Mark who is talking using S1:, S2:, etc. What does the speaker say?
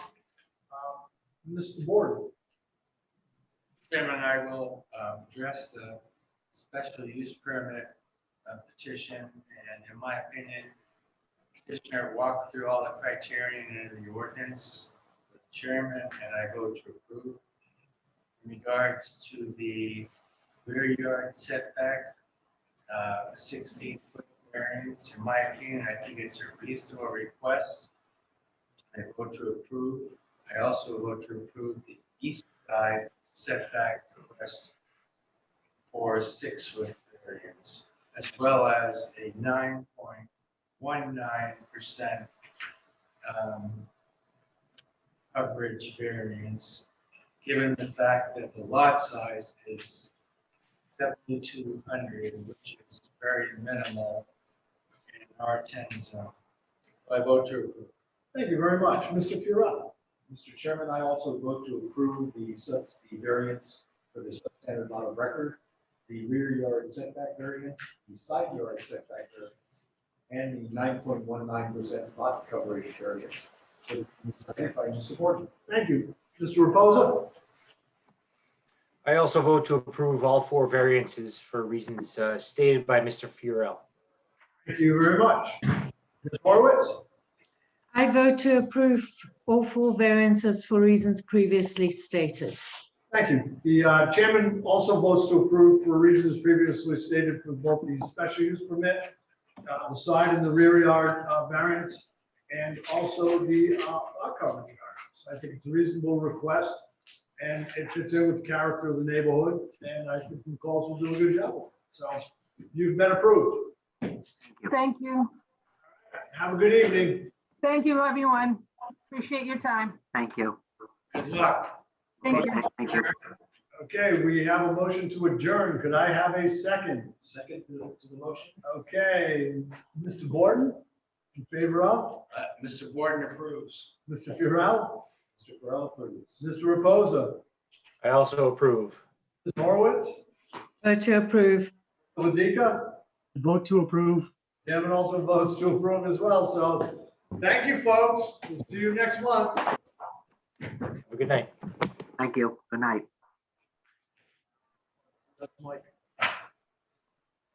S1: Mr. Board,
S2: Chairman, I will um, address the special use permit uh, petition, and in my opinion, petitioner walked through all the criterion in the ordinance, with the chairman, and I vote to approve. In regards to the rear yard setback, uh, 16 foot variance, in my opinion, I think it's a reasonable request. I vote to approve. I also vote to approve the east side setback request for six foot variance, as well as a nine point one nine percent um, coverage variance, given the fact that the lot size is seventy-two hundred, which is very minimal in R ten zone. I vote to approve.
S1: thank you very much. Mr. Furell,
S3: Mr. Chairman, I also vote to approve the sub, the variance for the substandard lot of record, the rear yard setback variance, the side yard setback variance, and the nine point one nine percent lot coverage variance. With the Second by Mr. Gordon.
S1: thank you. Mr. Reposa,
S4: I also vote to approve all four variances for reasons uh, stated by Mr. Furell.
S1: thank you very much. Ms. Horowitz,
S5: I vote to approve all four variances for reasons previously stated.
S1: thank you. The uh, chairman also votes to approve for reasons previously stated for both the special use permit, uh, the side and the rear yard uh, variance, and also the uh, lot coverage variance. I think it's a reasonable request, and it fits in with the character of the neighborhood, and I think the calls will do a good job. So you've been approved.
S6: Thank you.
S1: Have a good evening.
S6: Thank you, everyone. Appreciate your time.
S7: Thank you.
S1: Good luck.
S6: Thank you.
S7: Thank you.
S1: Okay, we have a motion to adjourn. Could I have a second?
S3: Second to the- to the motion.
S1: Okay, Mr. Borden, in favor of,
S2: Uh, Mr. Warden approves.
S1: Mr. Furell,
S3: Mr. Burrell, please.
S1: Mr. Reposa,
S4: I also approve.
S1: Ms. Horowitz,
S5: Vote to approve.
S1: Ladika.
S8: Vote to approve.
S1: Devin also votes to approve as well, so thank you, folks. We'll see you next month.
S4: Have a good night.
S7: Thank you. Good night.
S1: That's Mike.